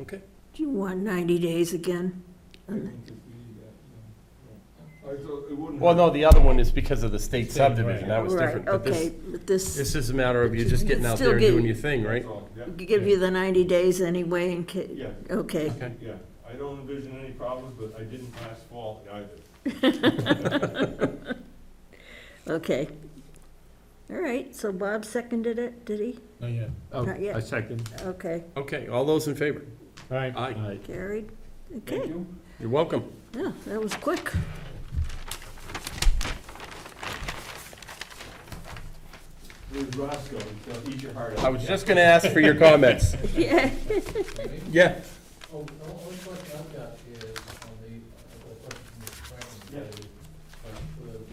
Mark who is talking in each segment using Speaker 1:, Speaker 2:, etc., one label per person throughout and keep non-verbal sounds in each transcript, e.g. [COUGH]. Speaker 1: Okay.
Speaker 2: Do you want 90 days again?
Speaker 3: I think if we, uh, yeah. I thought it wouldn't.
Speaker 1: Well, no, the other one is because of the state
Speaker 4: State, right.
Speaker 1: subdivision, that was different,
Speaker 2: Right,
Speaker 1: but
Speaker 2: okay,
Speaker 1: this,
Speaker 2: but this,
Speaker 1: this is a matter of you just getting out
Speaker 2: Still
Speaker 1: there and doing
Speaker 2: getting-
Speaker 1: your thing, right?
Speaker 3: That's all, yeah,
Speaker 2: give you the 90 days anyway in case,
Speaker 3: yeah,
Speaker 2: okay.
Speaker 3: yeah. I don't envision any problems, but I didn't last fall either.
Speaker 2: Okay. All right, so Bob seconded it, did he?
Speaker 4: Not yet.
Speaker 5: Oh,
Speaker 2: Not yet.
Speaker 5: I second.
Speaker 2: Okay,
Speaker 1: Okay, all those in favor?
Speaker 4: All right.
Speaker 1: Aye.
Speaker 2: carried.
Speaker 3: Thank
Speaker 2: Okay,
Speaker 3: you.
Speaker 1: You're welcome.
Speaker 2: yeah, that
Speaker 1: [LAUGHS]
Speaker 2: was quick.
Speaker 3: Where's Roscoe? He's gonna eat your heart out.
Speaker 1: I was just gonna ask for your [LAUGHS] comments.
Speaker 2: Yeah.
Speaker 1: Yeah,
Speaker 6: Oh, the only question I've got is on the, uh, a question from Mr. Franklin,
Speaker 3: Yeah.
Speaker 6: related, uh, for the uh,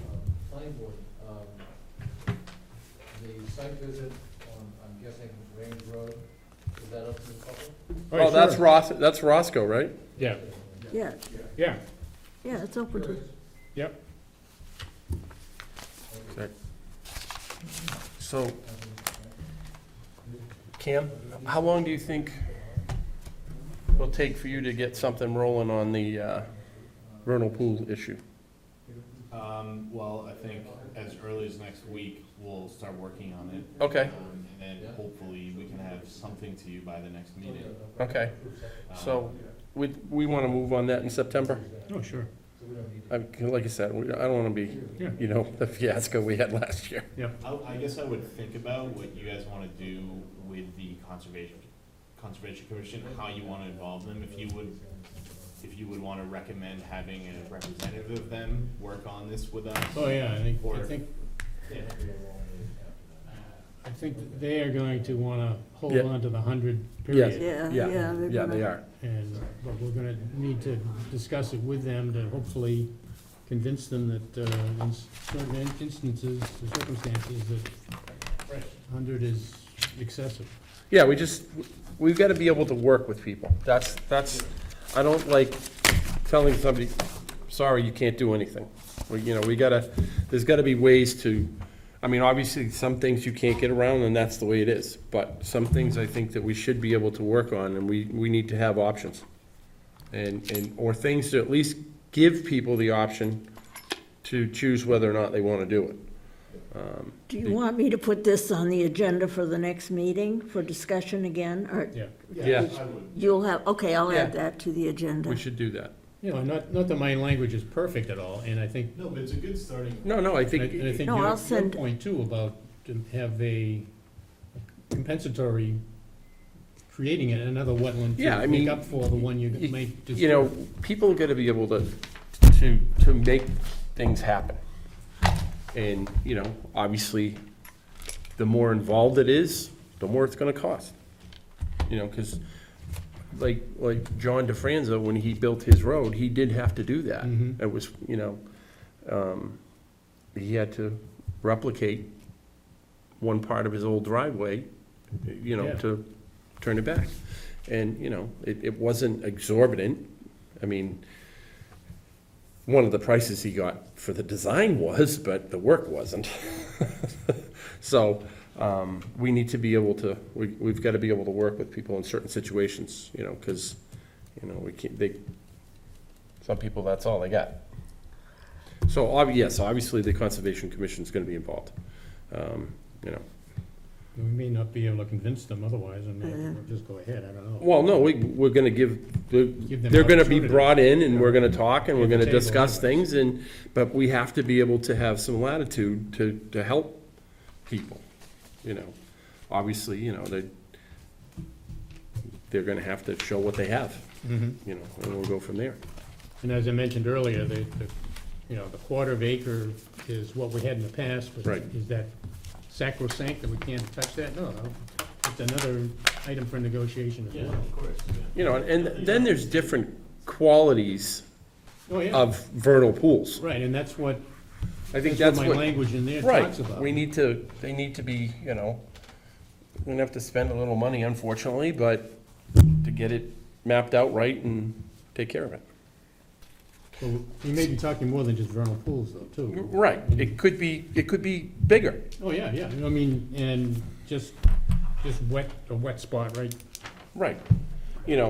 Speaker 6: planning board. um, The site visit on, I'm guessing, Range Road, is that up to the public?
Speaker 1: oh, that's Ros, that's Roscoe, right?
Speaker 4: Yeah,
Speaker 2: Yeah,
Speaker 4: yeah,
Speaker 2: yeah, it's open to,
Speaker 4: yep.
Speaker 1: So, Cam, how long do you think it'll take for you to get something rolling on the uh, vernal pool issue?
Speaker 7: Um, well, I think as early as next week, we'll start working on it.
Speaker 1: Okay,
Speaker 7: Um, And then hopefully we can have something to you by the next meeting.
Speaker 1: okay,
Speaker 7: Um,
Speaker 1: so we, we want to move on that in September?
Speaker 4: Oh, sure.
Speaker 1: I- Like I said, we- I don't want to be,
Speaker 4: Yeah.
Speaker 1: you know, the fiasco we had last year.
Speaker 7: I, I guess I would think about what you guys wanna do with the conservation, conservation commission, how you wanna involve them, if you would, if you would wanna recommend having a representative of them work on this with us.
Speaker 4: Oh, yeah, I think, I
Speaker 7: Or-
Speaker 4: think,
Speaker 7: Yeah.
Speaker 4: I think that they are going to wanna hold
Speaker 1: Yeah.
Speaker 4: on to the hundred
Speaker 1: Yes.
Speaker 4: period.
Speaker 2: yeah, Uh, yeah. they're
Speaker 1: Yeah,
Speaker 2: gonna-
Speaker 1: they are.
Speaker 4: And, but we're gonna need to discuss it with them to hopefully convince them that, uh, in certain in- instances, the circumstances that hundred is excessive.
Speaker 1: Yeah, we just, we've got to be able to work with people. That's, that's, I don't like telling somebody, sorry, you can't do anything. We, you know, we gotta, there's gotta be ways to, I mean, obviously, some things you can't get around, and that's the way it is. But some things I think that we should be able to work on, and we, we need to have options. And, and, or things to at least give people the option to choose whether or not they want to do it.
Speaker 2: Do you want me to put this on the agenda for the next meeting for discussion again? Or
Speaker 4: Yeah.
Speaker 1: Yeah.
Speaker 7: I would.
Speaker 2: you'll have, okay, I'll add
Speaker 1: Yeah.
Speaker 2: that to the agenda.
Speaker 1: We should do that.
Speaker 4: You know, not, not that my language is perfect at all, and I think,
Speaker 7: No, but it's a good starting.
Speaker 1: No, no, I
Speaker 4: and I and I
Speaker 1: think,
Speaker 4: think
Speaker 2: No, I'll
Speaker 4: your, your
Speaker 2: send-
Speaker 4: point too about to have a compensatory, creating it another wetland
Speaker 1: Yeah, I
Speaker 4: to
Speaker 1: mean,
Speaker 4: make up for the one you
Speaker 1: y-
Speaker 4: might just.
Speaker 1: you know, people are gonna be able to, to, to make things happen. And, you know, obviously, the more involved it is, the more it's gonna cost. You know, cause like, like John DeFranza, when he built his road, he did have to do that.
Speaker 4: Mhm.
Speaker 1: It was, you know, um, he had to replicate one part of his old driveway, you know,
Speaker 4: Yeah.
Speaker 1: to turn it back. And, you know, it, it wasn't exorbitant. I mean, one of the prices he got for the design was, but the work wasn't. [LAUGHS] So, um, we need to be able to, we, we've gotta be able to work with people in certain situations, you know, cause, you know, we can't, they, some people, that's all they got. So, obvi- yes, obviously, the Conservation Commission's gonna be involved, um, you know.
Speaker 4: We may not be able to convince them otherwise, and
Speaker 2: Yeah.
Speaker 4: we'll just go ahead, I don't know.
Speaker 1: Well, no, we, we're gonna give, the-
Speaker 4: Give them
Speaker 1: they're gonna be
Speaker 4: opportunity.
Speaker 1: brought in, and we're gonna talk, and we're
Speaker 4: At the
Speaker 1: gonna
Speaker 4: table
Speaker 1: discuss
Speaker 4: anyways.
Speaker 1: things, and, but we have to be able to have some latitude to, to help people, you know. Obviously, you know, they, they're gonna have to show what they have,
Speaker 4: Mhm.
Speaker 1: you know, and we'll go from there.
Speaker 4: And as I mentioned earlier, the, the, you know, the quarter of acre is what we had in the past, but
Speaker 1: Right.
Speaker 4: is that sacrosanct that we can't touch that? No, no. it's another item for negotiation as well.
Speaker 7: of course, yeah.
Speaker 1: You know, and then there's different qualities
Speaker 4: Oh, yeah,
Speaker 1: of vernal pools.
Speaker 4: right, and that's what,
Speaker 1: Um, I think that's
Speaker 4: that's what my
Speaker 1: what,
Speaker 4: language in there
Speaker 1: right,
Speaker 4: talks about.
Speaker 1: we need to, they need to be, you know, we're gonna have to spend a little money unfortunately, but to get it mapped out right and take care of it.
Speaker 4: So We may be talking more than just vernal pools though, too.
Speaker 1: Right, it could be, it could be bigger,
Speaker 4: Oh, yeah, yeah, I mean, and just, just wet, a wet spot right
Speaker 1: right, you know,